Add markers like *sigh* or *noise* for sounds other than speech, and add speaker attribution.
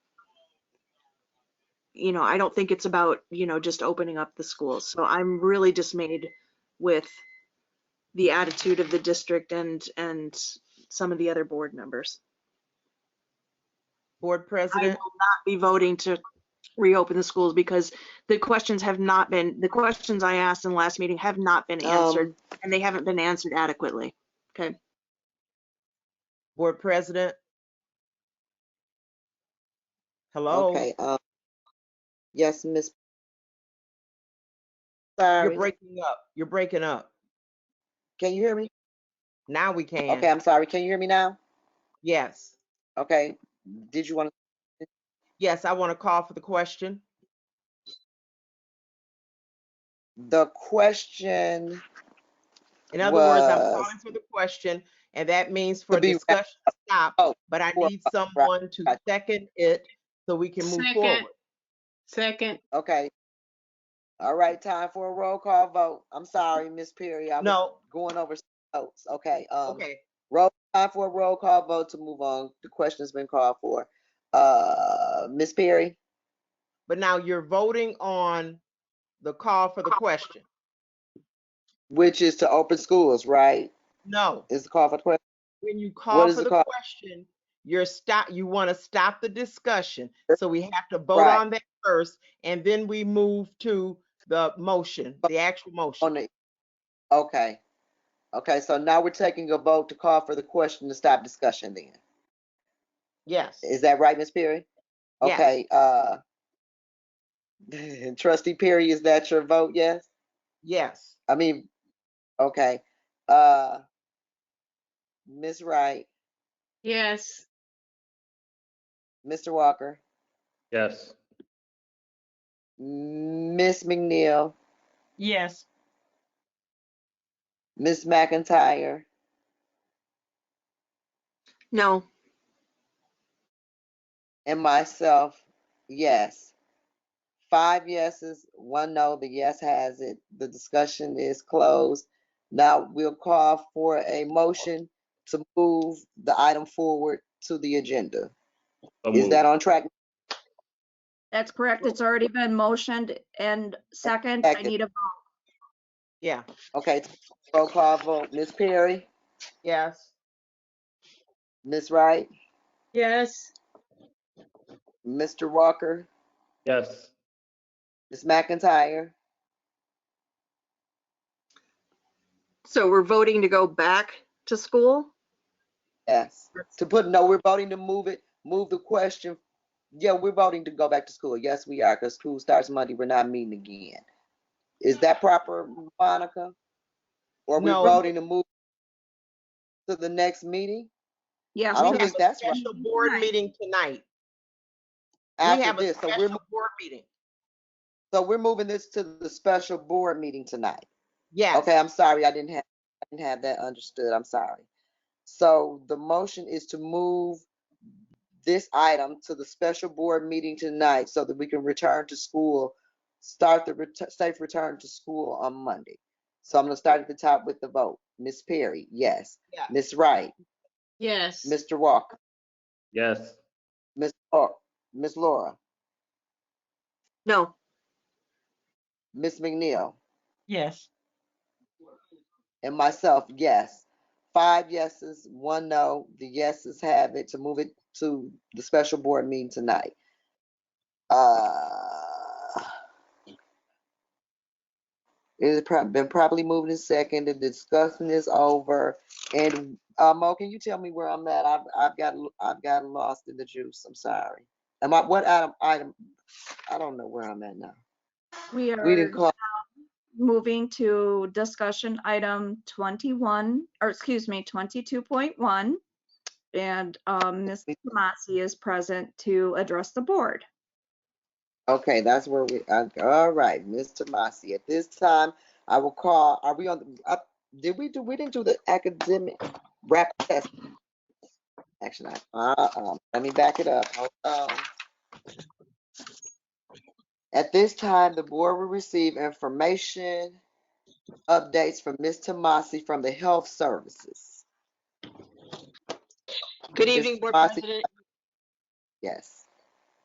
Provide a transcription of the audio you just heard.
Speaker 1: you know, I don't think it's about, you know, just opening up the schools. So I'm really dismayed with the attitude of the district and, and some of the other board members.
Speaker 2: Board
Speaker 1: I will
Speaker 2: President,
Speaker 1: not be voting to reopen the schools because the questions have not been, the questions I asked in the last meeting have not been
Speaker 2: Um,
Speaker 1: answered and they haven't been answered adequately. Okay.
Speaker 2: Board President? Hello?
Speaker 3: Okay, uh, yes, Miss.
Speaker 2: You're
Speaker 3: Sorry,
Speaker 2: breaking up. You're breaking up.
Speaker 3: can you hear me?
Speaker 2: Now we can.
Speaker 3: Okay, I'm sorry, can you hear me now?
Speaker 2: Yes.
Speaker 3: Okay,
Speaker 2: Mm-hmm.
Speaker 3: did you want, to?
Speaker 2: Yes, I want to call for the question.
Speaker 3: the question,
Speaker 2: In other words, I'm
Speaker 3: Was-
Speaker 2: calling for the question, and that means for
Speaker 3: To be wrapped
Speaker 2: discussion to stop,
Speaker 3: Oh,
Speaker 2: but I
Speaker 3: well,
Speaker 2: need
Speaker 3: right,
Speaker 2: someone to
Speaker 3: gotcha.
Speaker 2: second it so we can move
Speaker 4: Second.
Speaker 2: forward.
Speaker 4: Second,
Speaker 3: okay. All right, time for a roll call vote. I'm sorry, Miss Perry, I was
Speaker 2: No,
Speaker 3: going over some votes, okay, um,
Speaker 2: okay.
Speaker 3: roll, time for a roll call vote to move on. The question's been called for. Uh, Miss Perry,
Speaker 2: But now you're voting on the call for the question.
Speaker 3: which is to open schools, right?
Speaker 2: No,
Speaker 3: Is the call for the question?
Speaker 2: when you call
Speaker 3: is
Speaker 2: for
Speaker 3: it
Speaker 2: the
Speaker 3: called?
Speaker 2: question, you're stop, you want to stop the discussion. So we have to vote
Speaker 3: Right.
Speaker 2: on that first, and then we move to the motion, the actual
Speaker 3: On
Speaker 2: motion.
Speaker 3: the, okay. Okay, so now we're taking a vote to call for the question to stop discussion then.
Speaker 2: Yes,
Speaker 3: Is that right, Ms. Perry?
Speaker 2: Yes.
Speaker 3: Okay, uh, *laughs* trustee Perry, is that your vote, yes?
Speaker 2: yes.
Speaker 3: I mean, okay, uh, Ms. Wright,
Speaker 4: yes,
Speaker 3: Mr. Walker,
Speaker 5: Yes.
Speaker 3: Ms. McNeil,
Speaker 2: Yes.
Speaker 3: Ms. McIntyre,
Speaker 1: No,
Speaker 3: and myself, yes. Five yeses, one no, the yes has it. The discussion is closed. Now we'll call for a motion to move the item forward to the agenda.
Speaker 5: So
Speaker 3: Is
Speaker 5: moved.
Speaker 3: that on track?
Speaker 6: That's correct. It's already been motioned and second, I
Speaker 3: Second.
Speaker 6: need a,
Speaker 2: Yeah,
Speaker 3: Okay, roll call vote. Ms. Perry,
Speaker 2: yes.
Speaker 3: Ms. Wright,
Speaker 4: yes,
Speaker 3: Mr. Walker,
Speaker 5: Yes.
Speaker 3: Ms. McIntyre.
Speaker 1: so we're voting to go back to school?
Speaker 3: Yes. To put, no, we're voting to move it, move the question. Yeah, we're voting to go back to school. Yes, we are, because school starts Monday. We're not meeting again. Is that proper, Monica? Or we're
Speaker 2: No.
Speaker 3: voting to move to the next meeting?
Speaker 6: yes,
Speaker 3: I don't
Speaker 2: We
Speaker 6: because
Speaker 2: have
Speaker 3: think
Speaker 2: a
Speaker 3: that's right.
Speaker 2: special board meeting tonight. We have
Speaker 3: After
Speaker 2: a
Speaker 3: this, so we're,
Speaker 2: special board meeting.
Speaker 3: so we're moving this to the special board meeting tonight.
Speaker 2: Yes,
Speaker 3: Okay, I'm sorry, I didn't have, I didn't have that understood, I'm sorry. So the motion is to move this item to the special board meeting tonight so that we can return to school, start the ret- safe return to school on Monday. So I'm gonna start at the top with the vote. Ms. Perry, yes.
Speaker 2: Yeah.
Speaker 3: Ms. Wright,
Speaker 4: yes.
Speaker 3: Mr. Walker,
Speaker 5: Yes.
Speaker 3: Ms. Or, Ms. Laura,
Speaker 1: No,
Speaker 3: Ms. McNeil,
Speaker 2: Yes.
Speaker 3: and myself, yes. Five yeses, one no. The yeses have it to move it to the special board meeting tonight. Uh, It has prob- been properly moved and seconded. The discussion is over. And, uh, Mo, can you tell me where I'm at? I've, I've got, l- I've got lost in the juice. I'm sorry. Am I, what item, item? I don't know where I'm at now.
Speaker 6: we
Speaker 3: We didn't
Speaker 6: are
Speaker 3: call,
Speaker 6: moving to discussion item 21, or excuse me, 22.1. And um, Ms. Tomasi is present to address the board.
Speaker 3: Okay, that's where we, uh, all right, Mr. Massey, at this time, I will call, are we on, the- uh, did we do, we didn't do the academic rap test? Action item, uh, um, let me back it up, hold on. At this time, the board will receive information, updates from Ms. Tomasi from the Health Services,
Speaker 7: Good
Speaker 3: Ms.
Speaker 7: evening, Board
Speaker 3: Tomasi.
Speaker 7: President,
Speaker 3: yes.